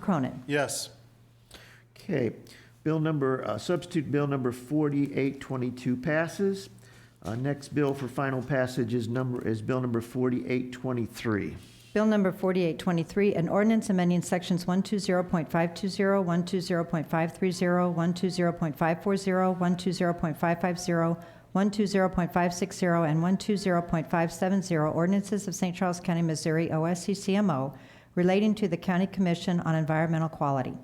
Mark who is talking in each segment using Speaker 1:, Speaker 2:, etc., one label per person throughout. Speaker 1: Cronin.
Speaker 2: Yes.
Speaker 3: Okay, bill number, uh, substitute bill number 4822 passes. Uh, Next bill for final passage is number, is bill number 4823.
Speaker 1: Bill number 4823, an ordinance amending sections 120.520, 120.530, 120.540, 120.550, 120.560, and 120.570 ordinances of St. Charles County, Missouri, OSCCMO, relating to the County Commission on Environmental Quality.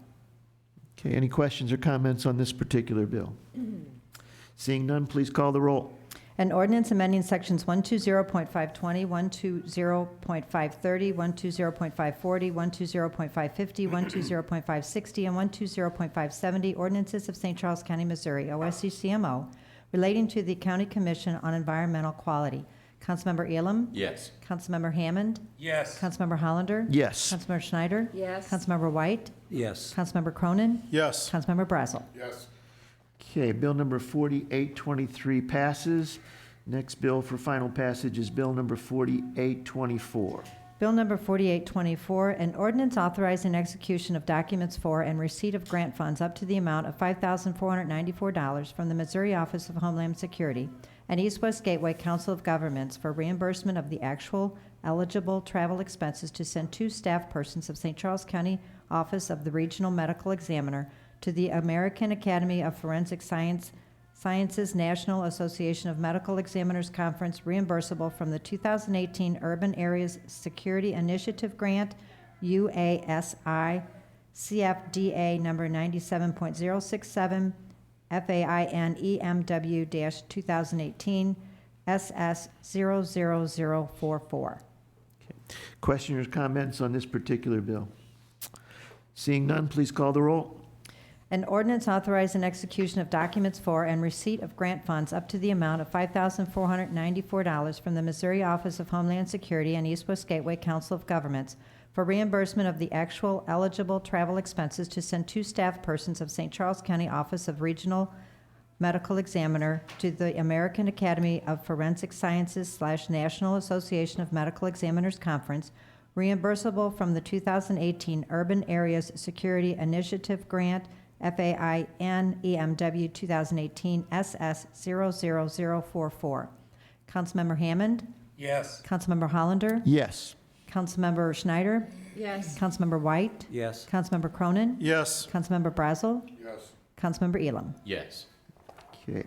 Speaker 3: Okay, any questions or comments on this particular bill? Seeing none, please call the roll.
Speaker 1: An ordinance amending sections 120.520, 120.530, 120.540, 120.550, 120.560, and 120.570 ordinances of St. Charles County, Missouri, OSCCMO, relating to the County Commission on Environmental Quality. Councilmember Elam?
Speaker 4: Yes.
Speaker 1: Councilmember Hammond?
Speaker 4: Yes.
Speaker 1: Councilmember Hollander?
Speaker 3: Yes.
Speaker 1: Councilmember Schneider?
Speaker 5: Yes.
Speaker 1: Councilmember White?
Speaker 4: Yes.
Speaker 1: Councilmember Cronin?
Speaker 2: Yes.
Speaker 1: Councilmember Brazel?
Speaker 2: Yes.
Speaker 3: Okay, bill number 4823 passes. Next bill for final passage is bill number 4824.
Speaker 1: Bill number 4824, an ordinance authorizing execution of documents for and receipt of grant funds up to the amount of $5,494 from the Missouri Office of Homeland Security and East West Gateway Council of Governments for reimbursement of the actual eligible travel expenses to send two staff persons of St. Charles County Office of the Regional Medical Examiner to the American Academy of Forensic Science Sciences National Association of Medical Examiners Conference reimbursable from the 2018 Urban Areas Security Initiative Grant, UASI CFDA number 97.067, FAIN EMW 2018 SS 00044.
Speaker 3: Questioners, comments on this particular bill? Seeing none, please call the roll.
Speaker 1: An ordinance authorizing execution of documents for and receipt of grant funds up to the amount of $5,494 from the Missouri Office of Homeland Security and East West Gateway Council of Governments for reimbursement of the actual eligible travel expenses to send two staff persons of St. Charles County Office of Regional Medical Examiner to the American Academy of Forensic Sciences slash National Association of Medical Examiners Conference, reimbursable from the 2018 Urban Areas Security Initiative Grant, FAIN EMW 2018 SS 00044. Councilmember Hammond,
Speaker 4: Yes.
Speaker 1: Councilmember Hollander,
Speaker 3: Yes.
Speaker 1: Councilmember Schneider,
Speaker 5: Yes.
Speaker 1: Councilmember White,
Speaker 4: Yes.
Speaker 1: Councilmember Cronin,
Speaker 2: Yes.
Speaker 1: Councilmember Brazel. Yes. Councilmember Elam.
Speaker 4: Yes.
Speaker 3: Okay.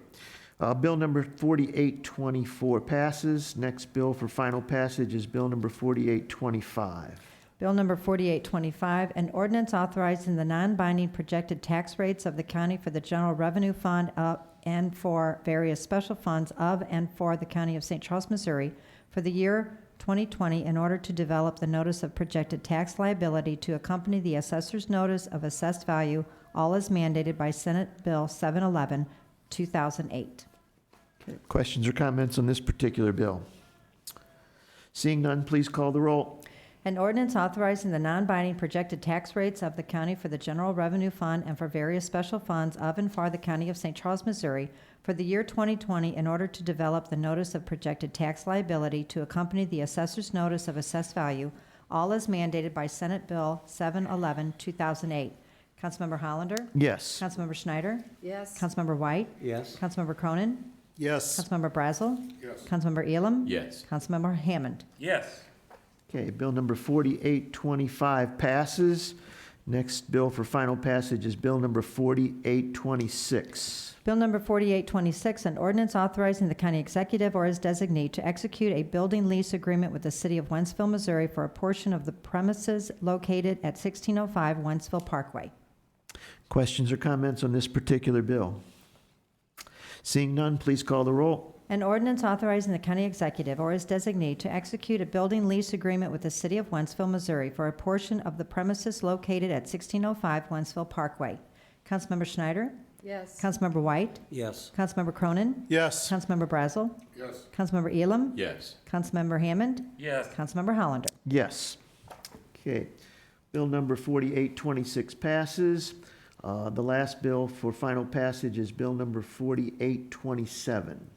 Speaker 3: Uh, Bill number 4824 passes. Next bill for final passage is bill number 4825.
Speaker 1: Bill number 4825, an ordinance authorizing the non-binding projected tax rates of the county for the general revenue fund uh, and for various special funds of and for the county of St. Charles, Missouri for the year 2020 in order to develop the notice of projected tax liability to accompany the assessor's notice of assessed value, all as mandated by Senate Bill 711, 2008.
Speaker 3: Questions or comments on this particular bill? Seeing none, please call the roll.
Speaker 1: An ordinance authorizing the non-binding projected tax rates of the county for the general revenue fund and for various special funds of and for the county of St. Charles, Missouri for the year 2020 in order to develop the notice of projected tax liability to accompany the assessor's notice of assessed value, all as mandated by Senate Bill 711, 2008. Councilmember Hollander?
Speaker 3: Yes.
Speaker 1: Councilmember Schneider?
Speaker 5: Yes.
Speaker 1: Councilmember White?
Speaker 4: Yes.
Speaker 1: Councilmember Cronin?
Speaker 2: Yes.
Speaker 1: Councilmember Brazel? Yes. Councilmember Elam?
Speaker 4: Yes.
Speaker 1: Councilmember Hammond?
Speaker 4: Yes.
Speaker 3: Okay, bill number 4825 passes. Next bill for final passage is bill number 4826.
Speaker 1: Bill number 4826, an ordinance authorizing the county executive or his designee to execute a building lease agreement with the city of Wentzville, Missouri for a portion of the premises located at 1605 Wentzville Parkway.
Speaker 3: Questions or comments on this particular bill? Seeing none, please call the roll.
Speaker 1: An ordinance authorizing the county executive or his designee to execute a building lease agreement with the city of Wentzville, Missouri for a portion of the premises located at 1605 Wentzville Parkway. Councilmember Schneider?
Speaker 5: Yes.
Speaker 1: Councilmember White?
Speaker 4: Yes.
Speaker 1: Councilmember Cronin?
Speaker 2: Yes.
Speaker 1: Councilmember Brazel? Yes. Councilmember Elam?
Speaker 4: Yes.
Speaker 1: Councilmember Hammond?
Speaker 4: Yes.
Speaker 1: Councilmember Hollander.
Speaker 3: Yes. Okay. Bill number 4826 passes. Uh, The last bill for final passage is bill number 4827.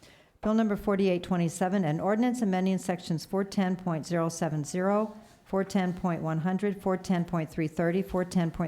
Speaker 1: Bill number 4827, an ordinance amending sections 410.070, 410.100, 410.330, 410.331,